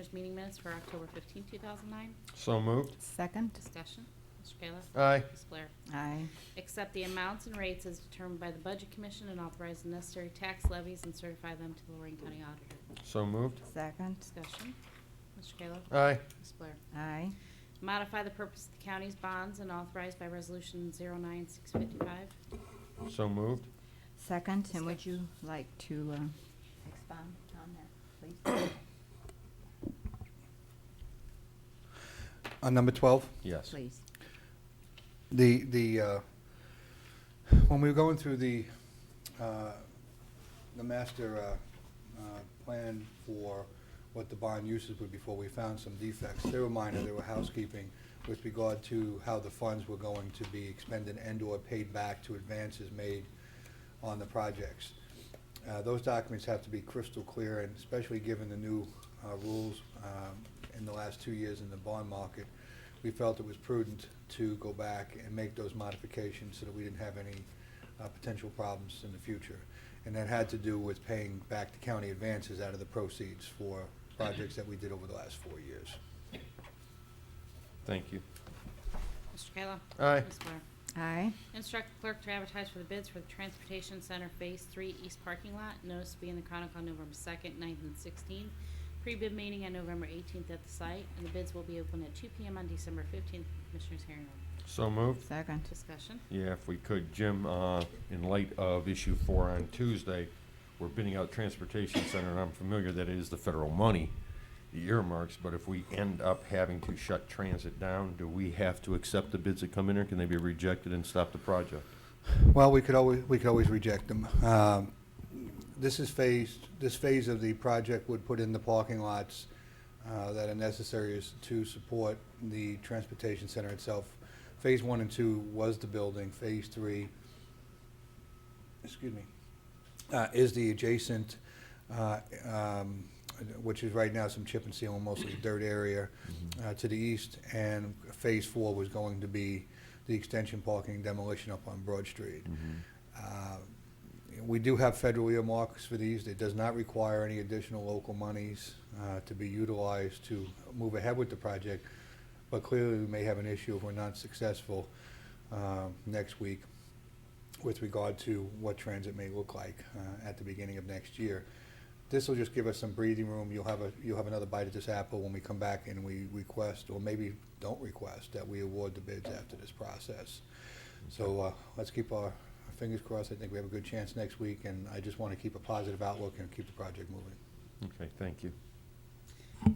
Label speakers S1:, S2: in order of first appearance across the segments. S1: Commissioners' meeting minutes for October 15, 2009.
S2: So moved.
S3: Second.
S1: Discussion. Mr. Kayla.
S2: Aye.
S1: Ms. Blair.
S3: Aye.
S1: Accept the amounts and rates as determined by the Budget Commission and authorize the necessary tax levies and certify them to the Lorraine County Auditor.
S2: So moved.
S3: Second.
S1: Discussion. Mr. Kayla.
S2: Aye.
S1: Ms. Blair.
S3: Aye.
S1: Modify the purpose of the county's bonds and authorized by Resolution 09655.
S2: So moved.
S3: Second, and would you
S1: Discussion.
S3: like to, uh, expound on that, please?
S4: On Uh, number 12,
S2: Yes.
S3: Please.
S4: the, the, uh, when we were going through the, uh, the master uh, uh, plan for what the bond uses would be for, we found some defects. They were minor, they were housekeeping with regard to how the funds were going to be expended and/or paid back to advances made on the projects. Uh, Those documents have to be crystal clear, and especially given the new uh, rules um, in the last two years in the bond market, we felt it was prudent to go back and make those modifications so that we didn't have any uh, potential problems in the future. And that had to do with paying back the county advances out of the proceeds for projects that we did over the last four years.
S2: Thank you.
S1: Mr. Kayla.
S2: Aye.
S1: Ms. Blair.
S3: Aye.
S1: Instruct the clerk to advertise for the bids for the Transportation Center Phase Three East Parking Lot. Notice to be in the Chronicle on November second, 9th, and sixteenth. Pre-bid meeting on November eighteenth at the site, and the bids will be open at two PM on December fifteenth. Commissioners hearing room.
S2: So moved.
S3: Second.
S1: Discussion.
S2: Yeah, if we could, Jim, uh, in light of issue four on Tuesday, we're bidding out transportation center, and I'm familiar that it is the federal money, the earmarks, but if we end up having to shut transit down, do we have to accept the bids that come in, or can they be rejected and stop the project?
S4: Well, we could always, we could always reject them. Um, This is phased, this phase of the project would put in the parking lots uh, that are necessary is to support the transportation center itself. Phase one and two was the building, phase three, excuse me, uh, is the adjacent, uh, um, which is right now some chip and seal, and mostly dirt area uh, to the east, and phase four was going to be the extension parking demolition up on Broad Street.
S2: Mm-hmm.
S4: Uh, We do have federal earmarks for these. It does not require any additional local monies uh, to be utilized to move ahead with the project, but clearly we may have an issue if we're not successful uh, next week with regard to what transit may look like uh, at the beginning of next year. This will just give us some breathing room. You'll have a, you'll have another bite at this apple when we come back and we request, or maybe don't request, that we award the bids after this process. So uh, let's keep our fingers crossed. I think we have a good chance next week, and I just want to keep a positive outlook and keep the project moving.
S2: Okay, thank you.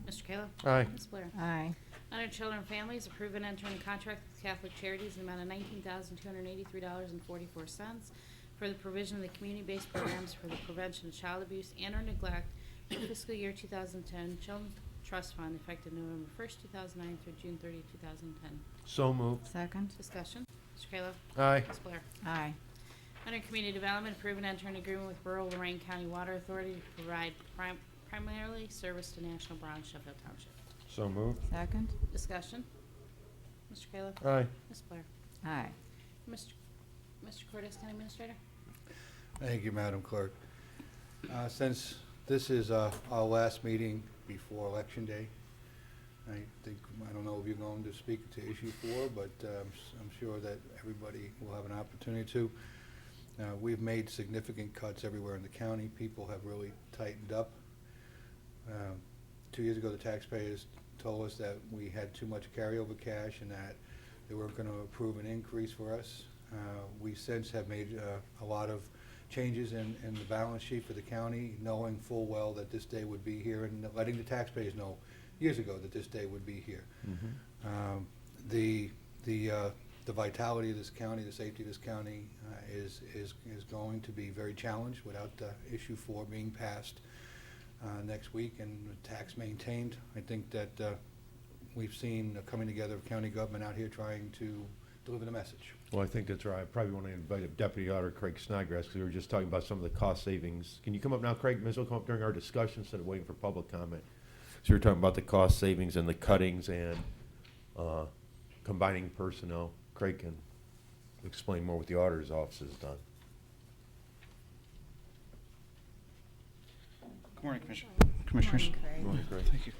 S1: Mr. Kayla.
S2: Aye.
S1: Ms. Blair.
S3: Aye.
S1: Under Children and Families, approve and enter in contract with Catholic Charities in the amount of nineteen thousand two hundred eighty-three dollars and forty-four cents for the provision of the community-based programs for the prevention of child abuse and or neglect for fiscal year two thousand ten Children's Trust Fund effective November first, two thousand nine through June 30, 2010.
S2: So moved.
S3: Second.
S1: Discussion, Mr. Kayla.
S2: Aye.
S1: Ms. Blair.
S3: Aye.
S1: Under Community Development, approve and enter an agreement with Rural Lorraine County Water Authority to provide prim- primarily service to National Brown Sheffield Township.
S2: So moved.
S3: Second.
S1: Discussion, Mr. Kayla.
S2: Aye.
S1: Ms. Blair.
S3: Aye.
S1: Mr. Mr. Cortez, County Administrator?
S4: Thank you, Madam Clerk. Uh, Since this is uh, our last meeting before Election Day, I think, I don't know if you're going to speak to issue four, but uh, I'm s- I'm sure that everybody will have an opportunity to. Uh, We've made significant cuts everywhere in the county. People have really tightened up. Um, Two years ago, the taxpayers told us that we had too much carryover cash and that they weren't going to approve an increase for us. Uh, We since have made uh, a lot of changes in, in the balance sheet for the county, knowing full well that this day would be here and letting the taxpayers know years ago that this day would be here.
S2: Mm-hmm.
S4: Um, The, the, uh, the vitality of this county, the safety of this county uh, is, is, is going to be very challenged without uh, issue four being passed uh, next week and the tax maintained. I think that uh, we've seen the coming together of county government out here trying to deliver the message.
S2: Well, I think that's right. I probably want to invite Deputy Auditor Craig Snodgrass, because we were just talking about some of the cost savings. Can you come up now, Craig? Ms. will come up during our discussion instead of waiting for public comment. So you're talking about the cost savings and the cuttings and uh, combining personnel. Craig can explain more what the auditor's office has done.
S5: Good morning, Commissioner- Commissioners.
S3: Craig.
S2: Craig.
S5: Thank you.